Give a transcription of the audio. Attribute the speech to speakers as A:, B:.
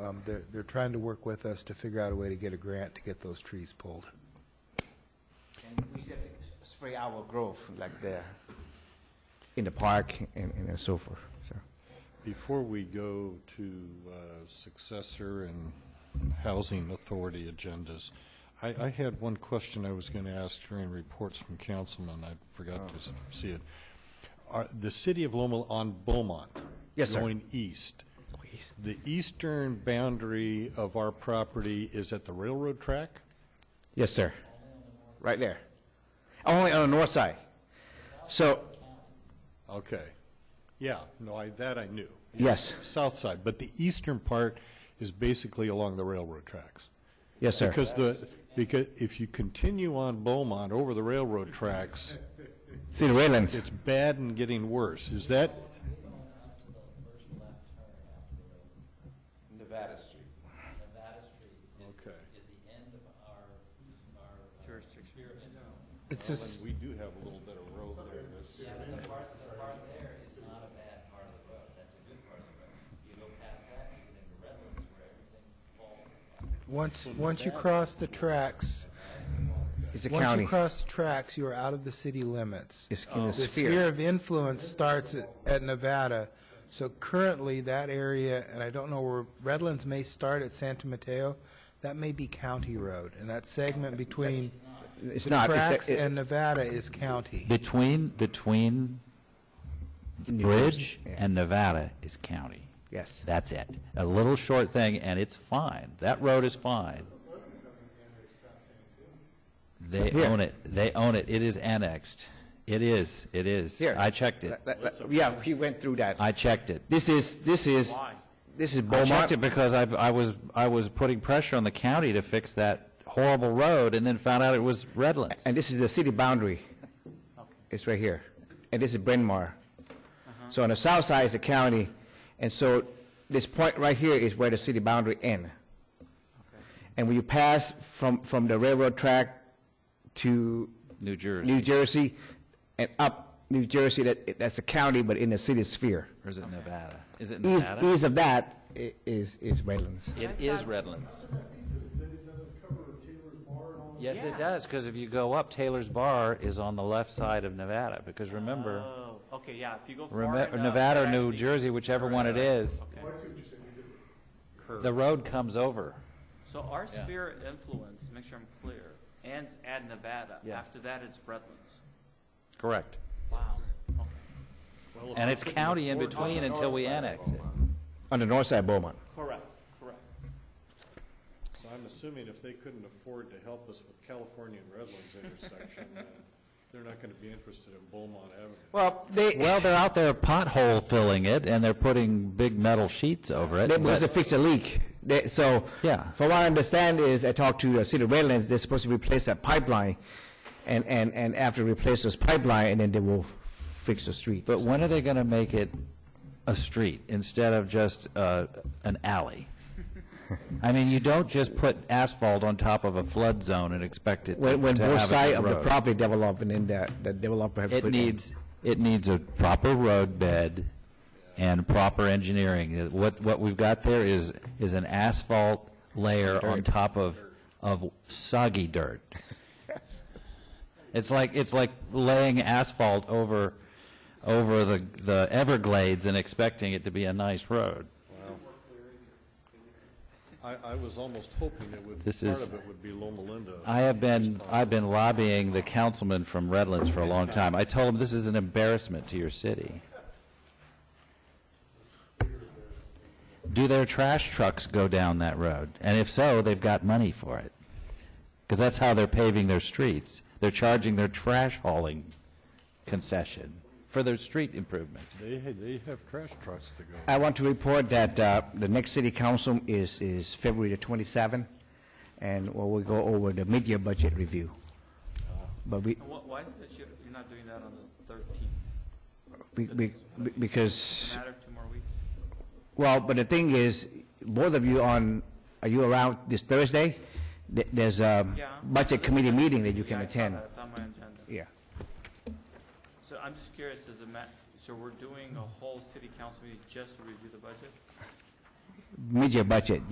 A: um, they're, they're trying to work with us to figure out a way to get a grant to get those trees pulled.
B: And we said to spray our growth like there, in the park and, and so forth, so.
C: Before we go to uh, successor and housing authority agendas, I, I had one question I was going to ask during reports from councilmen. I forgot to s-
B: Oh.
C: see it. Are, the city of Loma on Beaumont.
B: Yes, sir.
C: Going east. The eastern boundary of our property is at the railroad track?
B: Yes, sir. Right there. Only on the north side. So,
C: Okay. Yeah, no, I, that I knew.
B: yes,
C: South side, but the eastern part is basically along the railroad tracks.
B: yes, sir.
C: Because the, because if you continue on Beaumont over the railroad tracks,
B: See the railings?
C: it's bad and getting worse. Is that,
B: Nevada Street.
D: Nevada Street is,
C: okay.
D: is the end of our, our. uh, sphere. And
A: It's just,
C: We do have a little bit of road there. that's-
D: The part, the part there is not a bad part of the road, that's a good part of the road. You go past that, you get into Redlands where everything falls apart.
A: once, once you cross the tracks,
B: It's a
A: once you
B: county.
A: cross the tracks, you are out of the city limits.
B: It's in a
A: The
B: sphere.
A: sphere of influence starts at- at Nevada. So currently, that area, and I don't know where, Redlands may start at Santa Mateo, that may be county road. And that segment between
B: It's
A: the
B: not. it's a-
A: tracks
B: it-
A: and Nevada is county.
E: Between, between
B: New
E: Bridge
B: Jersey.
E: and Nevada is county.
B: Yes.
E: That's it. A little short thing, and it's fine. That road is fine. They
B: Here.
E: own it. They own it. It is annexed. It is, it is.
B: Here.
E: I checked it.
B: Let- let- let- Yeah, he went through that.
E: I checked it.
B: This is, this is, this is
E: I
B: Beaumont.
E: checked it because I, I was, I was putting pressure on the county to fix that horrible road, and then found out it was Redlands.
B: And this is the city boundary. It's right here. And this is Bryn Mawr. So on the south side is the county, and so this point right here is where the city boundary end. And when you pass from, from the railroad track to
E: New Jersey.
B: New Jersey and up New Jersey, that, that's a county, but in the city sphere.
E: Or is it Nevada? Is it
B: East,
E: Nevada?
B: east of that i- is, is Redlands.
E: It is Redlands. Yes, it does, because if you go up, Taylor's Bar is on the left side of Nevada, because remember,
F: Oh, okay, yeah, if you go far
E: remember,
F: enough,
E: Nevada
F: it
E: or New
F: actually-
E: Jersey, whichever one it is,
F: Okay.
E: the road comes over.
F: So our sphere of influence, make sure I'm clear, ends at Nevada.
E: Yeah.
F: After that, it's Redlands.
E: Correct.
F: Wow. Okay. Oh,
E: And it's county in between until we annex it.
B: On the north side of Beaumont.
F: Correct, correct.
C: So I'm assuming if they couldn't afford to help us with California and Redlands intersection, uh, they're not going to be interested in Beaumont Avenue.
B: Well, they,
E: Well, they're out there pothole filling it, and they're putting big metal sheets over it.
B: They must
E: but-
B: have fixed a leak. They, so,
E: Yeah.
B: from what I understand is, I talked to the city of Redlands, they're supposed to replace that pipeline, and, and, and after replace this pipeline, and then they will fix the street.
E: But when are they going to make it a street instead of just uh, an alley? I mean, you don't just put asphalt on top of a flood zone and expect it to
B: When, when
E: to
B: both
E: have a
B: sides
E: good
B: of the
E: road.
B: property develop, and then the, the developer have
E: It
B: put in-
E: needs, it needs a proper road bed and proper engineering. What, what we've got there is, is an asphalt layer on top of, of soggy dirt. It's like, it's like laying asphalt over, over the, the Everglades and expecting it to be a nice road.
C: I, I was almost hoping it would,
E: This
C: part
E: is-
C: of it would be Loma Linda.
E: I have been, I've been lobbying the councilman from Redlands for a long time. I told him this is an embarrassment to your city. Do their trash trucks go down that road? And if so, they've got money for it. Because that's how they're paving their streets. They're charging their trash hauling concession for their street improvements.
C: They, they have trash trucks to go.
B: I want to report that uh, the next city council is, is February the 27th, and we will go over the mid-year budget review. But we,
F: And what, why is it that you, you're not doing that on the thirteenth?
B: we- we, because
F: Matter two more weeks?
B: Well, but the thing is, both of you on, are you around this Thursday? Th- There's a
F: Yeah.
B: budget committee meeting that you
F: Yeah,
B: can
F: I saw
B: attend.
F: that. It's on my agenda.
B: Yeah.
F: So I'm just curious, is it ma, so we're doing a whole city council meeting just to review the budget?
B: Mid-year budget,